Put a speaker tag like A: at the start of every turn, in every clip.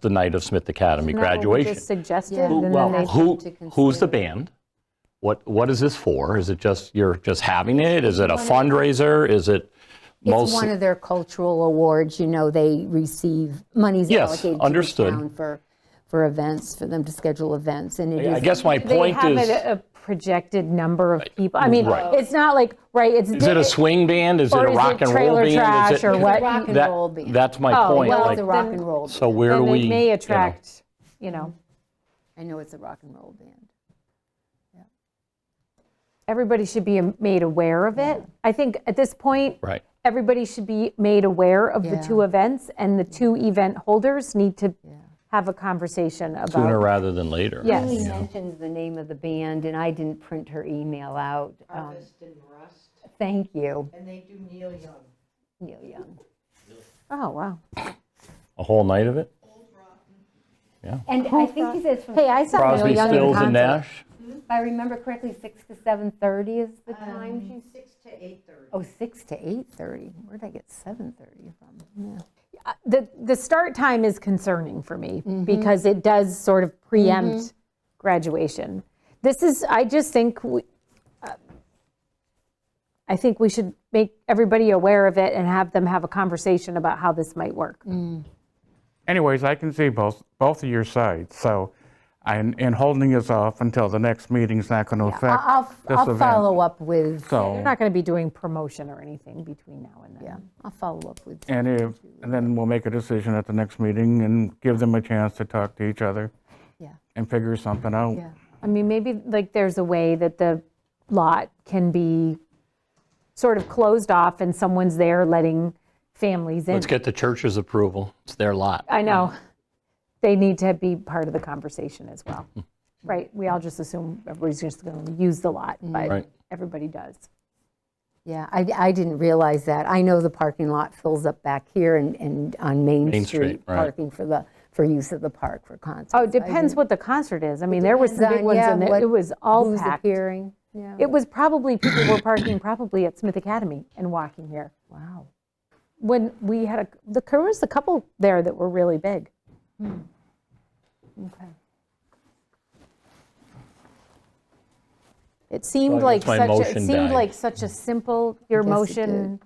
A: the night of Smith Academy
B: Isn't that what we
A: graduation.
B: just suggested?
C: Yeah.
B: And then
A: Well,
B: they-
A: who,
C: to consider.
A: who's the band? What, what is this for? Is it just, you're just having it? Is it a fundraiser? Is it
C: It's one
A: mostly?
C: of their cultural awards, you know, they receive, money's
A: Yes,
C: allocated to the
A: understood.
C: town for, for events, for them to schedule events, and it
A: I
C: is.
A: guess my
B: They
A: point
B: have uh,
A: is,
B: a a projected number of people. I mean,
A: Right.
B: it's not like, right, it's.
A: is it a swing band? Is it a
B: Or is it
A: rock and roll
B: trailer
A: band? Is
B: trash
A: it-
B: or
C: It's a
B: what?
C: Rock and
A: that-
C: roll band.
A: That's my
B: Oh,
A: point.
B: well,
C: Well,
A: like,
C: it's a
B: then-
C: rock and roll, band.
A: So where do
B: Then
A: we?
B: it
A: you
B: may
A: know,
B: attract, you know,
C: I know it's a rock and roll band.
B: everybody should be made aware of it. I think at this point.
A: Right.
B: Everybody should be made aware of the
C: Yeah.
B: two events and the two event holders need to have a conversation about.
A: Sooner rather than later.
B: Yes.
D: He mentions the name of the band, and I didn't print her email out. Um,
E: Harvest and Rust,
D: Thank you,
E: and they do Neil Young.
D: Neil Young.
B: Oh, wow.
A: A whole night of it?
D: And I think he says, from-
C: Hey, I saw Neil
A: Crosby,
C: Young in
A: Stills,
C: concert.
A: and Nash?
D: if I remember correctly, 6 to 7:30 is the
B: Um,
D: time she's,
E: Six to eight thirty.
D: oh, 6 to 8:30. Where'd I get 7:30 from?
B: The, the start time is concerning for me because it does sort of preempt graduation. This is, I just think, we- uh, I think we should make everybody aware of it and have them have a conversation about how this might work.
F: Anyways, I can see both, both of your sides, so, and, and holding us off until the next meeting's not going to affect
C: I'll,
F: this
C: I'll
F: event.
C: follow up with,
B: We're
F: So,
B: not going to be doing promotion or anything between now and then.
C: yeah, I'll follow up with,
F: and if, and then we'll make a decision at the next meeting and give them a chance to talk to each other
C: yeah,
F: and figure something out.
C: yeah.
B: I mean, maybe like there's a way that the lot can be sort of closed off and someone's there letting families in.
A: Let's get the church's approval. It's their lot.
B: I know. They need to be part of the conversation as well. Right? We all just assume everybody's just going to use the lot, but
A: Right.
B: everybody does.
C: Yeah, I, I didn't realize that. I know the parking lot fills up back here and, and on Main
A: Main
C: Street,
A: Street, right.
C: parking for the, for use of the park for concerts.
B: Oh, it depends what the concert is. I mean, there was some
C: Depends
B: big
C: on,
B: ones
C: yeah,
B: and it-
C: what-
B: it was all
C: Who's
B: packed.
C: appearing, yeah,
B: It was probably, people were parking probably at Smith Academy and walking here.
C: wow.
B: When we had, a the there was a couple there that were really big.
C: Hmm. Okay.
B: It seemed
A: So I
B: like
A: guess my
B: such, a- it
A: motion
B: seemed
A: died.
B: like such a simple, your
C: Yes, it
B: motion,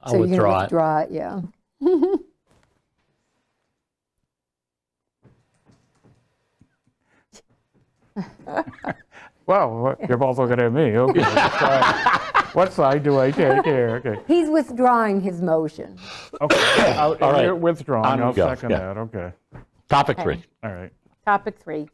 A: I'll withdraw it.
C: So you're going to withdraw it, yeah.
F: Well, what- you're both looking at me, okay. What side- What side do I take here? Okay,
C: He's withdrawing his motion.
F: okay. I'll-
A: All right.
F: You're
A: On
F: withdrawing,
A: we
F: I'll
A: go,
F: second
A: yeah.
F: that, okay,
A: Topic three.
F: all right.
B: topic three.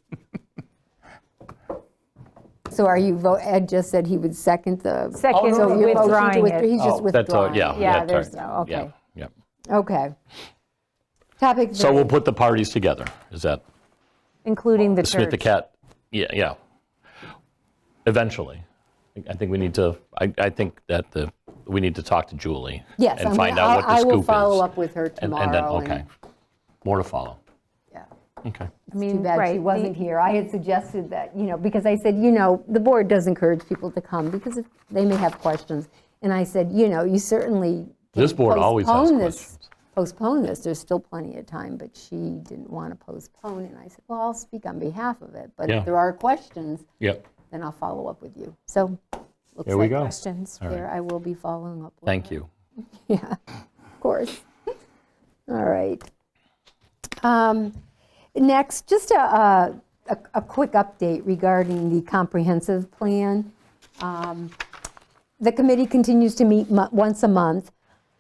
C: So are you, vo- Ed just said he would second the. Oh,
B: Second,
C: So your motion to
B: withdrawing
C: withdraw-
B: it.
C: He's just
A: Oh, that's all-
C: withdrawing.
A: Yeah.
C: it.
B: Yeah,
A: that's
B: there's
A: right.
B: no- okay.
A: Yeah, yeah.
C: Okay. Topic three.
A: So we'll put the parties together. Is that
B: Including the
A: Smith the
B: church.
A: Cat? Yeah, yeah. Eventually. I- I think we need to, I, I think that the, we need to talk to Julie.
C: Yes, I'm
A: And find
C: gonna-
A: out what
C: I-
A: the scoop is.
C: I will follow up with her
A: And-
C: tomorrow.
A: And then, okay. More to follow.
C: yeah.
A: Okay.
B: I mean,
C: Too bad
B: right,
C: she
B: the-
C: wasn't here. I had suggested that, you know, because I said, you know, the board does encourage people to come because if- they may have questions. And I said, you know, you certainly. can
A: This board always has
C: postpone this-
A: questions.
C: Postpone this, there's still plenty of time, but she didn't want to postpone. And I said, well, I'll speak on behalf of it, but
A: Yeah.
C: if there are questions,
A: Yep.
C: then I'll follow up with you. So, looks
A: There we
C: like
A: go.
C: questions there. I will be following up with
A: Thank you.
C: yeah, of course. All right. Um, Next, just a, a, a- a quick update regarding the comprehensive plan. Um, The committee continues to meet mo- once a month.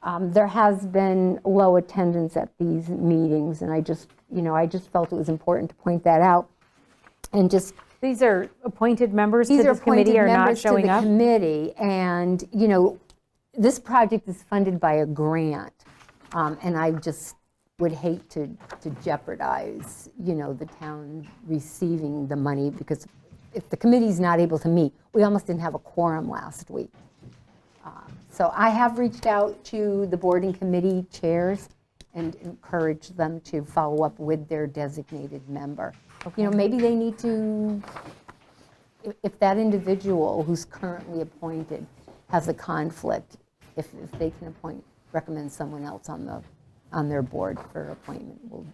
C: Um, There has been low attendance at these meetings, and I just, you know, I just felt it was important to point that out. And just
B: These are appointed members to
C: these are
B: this committee
C: appointed
B: are not
C: members to
B: showing
C: the
B: up.
C: committee, and, you know, this project is funded by a grant, um, and I just would hate to to jeopardize, you know, the town receiving the money, because if the committee's not able to meet, we almost didn't have a quorum last week. Um, So I have reached out to the board and committee chairs and encouraged them to follow up with their designated member. You know, maybe they need to, if- if that individual who's currently appointed has a conflict, if if they can appoint, recommend someone else on the, on their board for appointment, we'll